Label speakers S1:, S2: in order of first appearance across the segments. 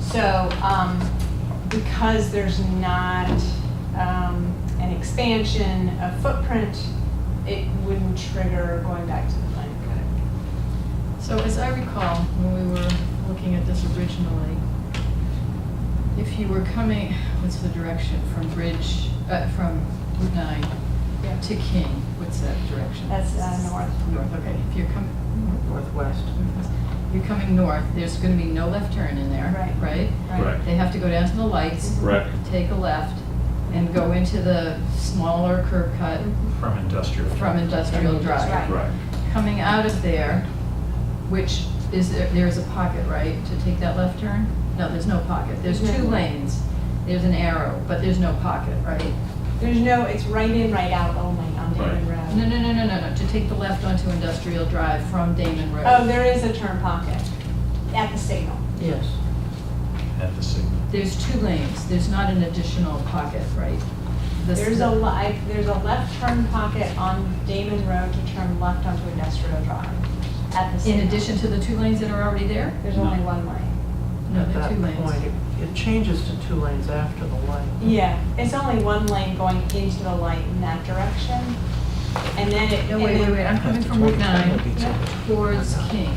S1: So, um, because there's not, um, an expansion of footprint, it wouldn't trigger going back to the planning board.
S2: So as I recall, when we were looking at this originally, if you were coming, what's the direction, from Bridge, uh, from Route 9
S1: Yeah.
S2: to King, what's that direction?
S1: That's, uh, north.
S2: North, okay, if you're coming,
S3: Northwest.
S2: you're coming north, there's gonna be no left turn in there,
S1: Right.
S2: right?
S4: Correct.
S2: They have to go down to the lights,
S4: Correct.
S2: take a left, and go into the smaller curb cut
S5: From industrial.
S2: from Industrial Drive.
S1: Right.
S4: Correct.
S2: Coming out of there, which is, there is a pocket, right, to take that left turn? No, there's no pocket. There's two
S1: No.
S2: lanes. There's an arrow, but there's no pocket, right?
S1: There's no, it's right in, right out oh only on Damon
S2: No, no,
S1: Road.
S2: no, no, no, no, to take the left onto Industrial Drive from Damon Road.
S1: Oh, there is a turn pocket at the signal.
S3: Yes.
S5: At the signal.
S2: There's two lanes. There's not an additional pocket, right? This-
S1: There's a, li- there's a left turn pocket on Damon Road to turn left onto Industrial Drive at the
S2: In
S1: signal.
S2: addition to the two lanes that are already there?
S1: There's only one lane.
S2: No,
S3: At
S2: there are
S3: that
S2: two
S3: point,
S2: lanes.
S3: it- It changes to two lanes after the light.
S1: Yeah, it's only one lane going into the light in that direction. And then it.
S2: No,
S1: and
S2: wait, wait,
S1: then-
S2: wait, I'm coming from Route 9
S1: Yeah.
S2: towards King.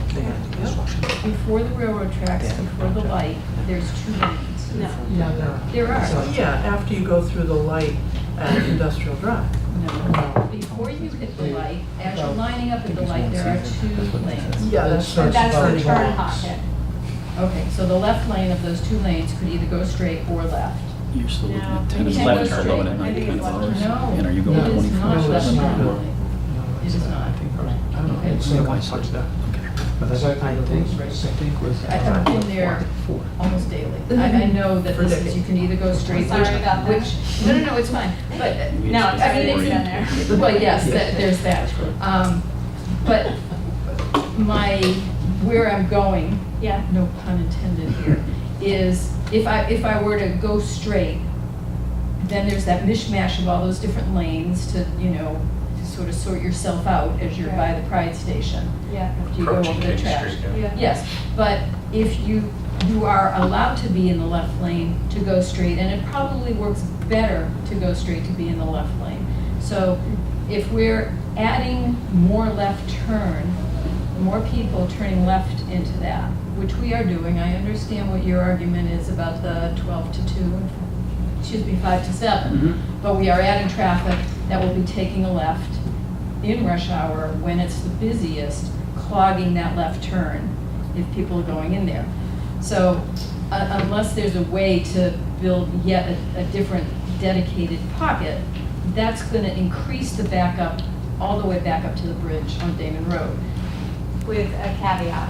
S2: Before the railroad tracks, before the light, there's two lanes.
S1: No,
S3: Yeah, there
S2: There
S3: So,
S2: are.
S3: Yeah, after you go through the light at Industrial Drive.
S2: No. Before you hit the light, as you're lining up at the light, there are two lanes.
S3: Yeah, that's.
S1: but that's the
S3: that's
S1: turn
S3: right.
S1: pocket.
S2: Okay, so the left lane of those two lanes could either go straight or left.
S6: You're still looking
S1: No.
S6: at ten
S2: You
S6: and
S2: can't
S6: eleven
S2: go
S6: turn eleven
S1: straight.
S6: at
S1: I
S6: ninety
S1: think
S6: kind of
S1: it's
S6: hours.
S1: left.
S2: No,
S6: And are you going
S2: it is
S6: 24?
S2: not left turn
S7: No.
S2: lane.
S7: No,
S2: It
S7: it's
S2: is
S7: not.
S2: not.
S7: I don't know,
S2: Okay.
S7: it's not much like that. But that's, I think, I think with.
S2: I have been there
S7: Four.
S2: almost daily. I, I know that this is, you can either go straight.
S1: Sorry
S2: which-
S1: about that.
S2: Which, no, no, no, it's fine, but uh,
S6: We
S1: No, I
S6: used to
S1: mean,
S6: have
S1: it's
S6: four
S1: in
S6: in-
S1: there.
S2: Well, yes, that-
S7: Yes.
S2: there's that.
S7: That's correct.
S2: Um, But my, where I'm going,
S1: Yeah,
S2: no pun intended here, is if I, if I were to go straight, then there's that mishmash of all those different lanes to, you know, to sort of sort yourself out as you're by the Pride Station.
S1: yeah,
S2: after you go
S5: Approaching
S2: over the
S5: King
S2: trash.
S5: Street, yeah.
S1: yeah.
S2: Yes, but if you, you are allowed to be in the left lane to go straight, and it probably works better to go straight to be in the left lane. So if we're adding more left turn, more people turning left into that, which we are doing, I understand what your argument is about the twelve to two, and excuse me, five to
S6: Mhm.
S2: seven. But we are adding traffic that will be taking a left in rush hour when it's the busiest, clogging that left turn if people are going in there. So uh, unless there's a way to build yet a- a different dedicated pocket, that's going to increase the backup all the way back up to the bridge on Damon Road,
S1: With a caveat,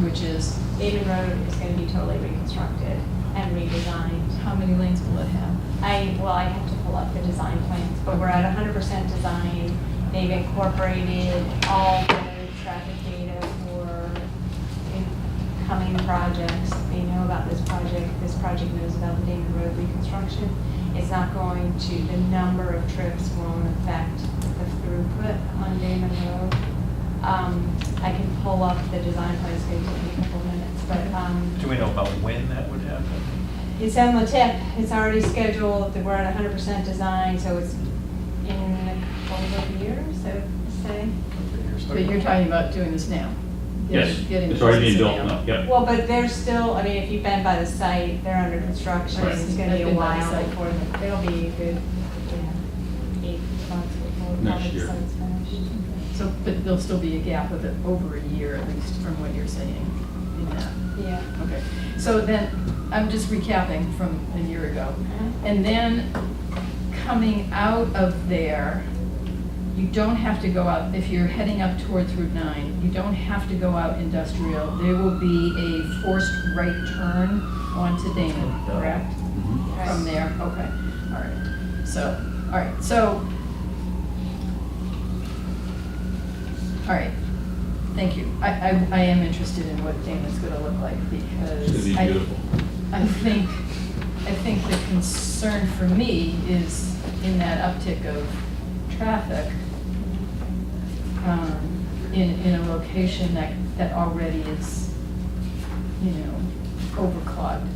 S2: which is,
S1: Damon Road is gonna be totally reconstructed and redesigned.
S2: how many lanes will it have?
S1: I, well, I have to pull up the design plans, but we're at hundred percent design. They've incorporated all the traffic data for incoming projects. They know about this project, this project knows about the Damon Road reconstruction. It's not going to, the number of trips won't affect the throughput on Damon Road. Um, I can pull up the design plans, it's gonna take me a couple minutes, but, um.
S5: Do we know about when that would happen?
S1: It's on the tip, it's already scheduled, we're at hundred percent design, so it's in a couple of years, I would say.
S2: But you're talking about doing this now.
S4: Yes,
S2: Getting
S4: it's already being
S2: this
S4: built
S2: now.
S4: up, yep.
S1: Well, but they're still, I mean, if you've been by the site, they're under construction,
S4: Right.
S1: it's gonna be a
S2: I've been by the
S1: while
S2: site.
S1: before, it'll be a good, yeah, eight months before.
S4: Next
S1: probably the
S4: year.
S1: site's finished.
S2: So, but there'll still be a gap of it over a year at least from what you're saying in that.
S1: Yeah.
S2: Okay, so then, I'm just recapping from a year ago. And then, coming out of there, you don't have to go out, if you're heading up towards Route 9, you don't have to go out industrial. There will be a forced right turn onto Damon, correct?
S6: Mhm.
S1: Right.
S2: From there, okay, all right. So, all right, so, all right, thank you. I, I, I am interested in what Damon's gonna look like because.
S4: It's gonna be
S2: I-
S4: beautiful.
S2: I think, I think the concern for me is in that uptick of traffic um, in, in a location that, that already is, you know, overclogged.